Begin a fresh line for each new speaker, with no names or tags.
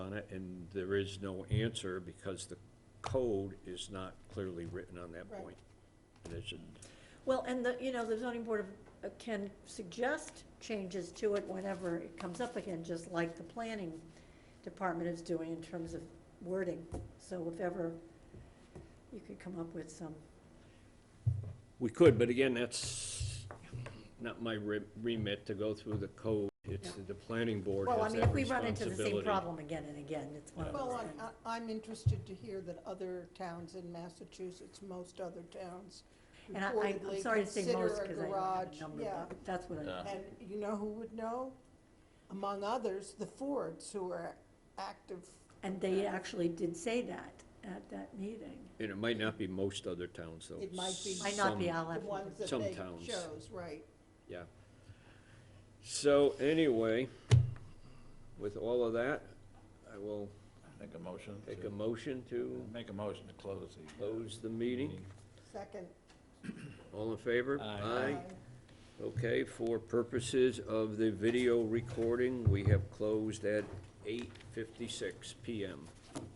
on it, and there is no answer because the code is not clearly written on that
Right.
point. And it's,
Well, and the, you know, the zoning board of- uh, can suggest changes to it whenever it comes up again, just like the planning department is doing in terms of wording. So if ever you could come up with some,
we could, but again, that's not my re- remit to go through the code. It's the planning board
well, I
has
mean,
that
if we run into the same
responsibility.
problem again and again, it's one of
Well,
those
I'm-
things.
I- I'm interested to hear that other towns in Massachusetts, most other towns,
And I, I- I'm
reportedly
sorry to say
uh, consider
most,
a
because I don't have
garage,
a number,
yeah.
but that's what I,
Uh-huh.
Yeah.
And you know who would know? Among others, the Fords, who are active.
and they actually did say that at that meeting.
And it might not be most other towns, though.
It might be-
Might not be,
Some-
I'll
The
have to look
ones that
Some
they
towns.
chose, right.
Yeah. So anyway, with all of that, I will
Make a motion
take a
to,
motion to
make a motion to close the.
close the meeting.
Second,
All in favor?
Aye.
Aye.
Okay, for purposes of the video recording, we have closed at eight fifty-six PM.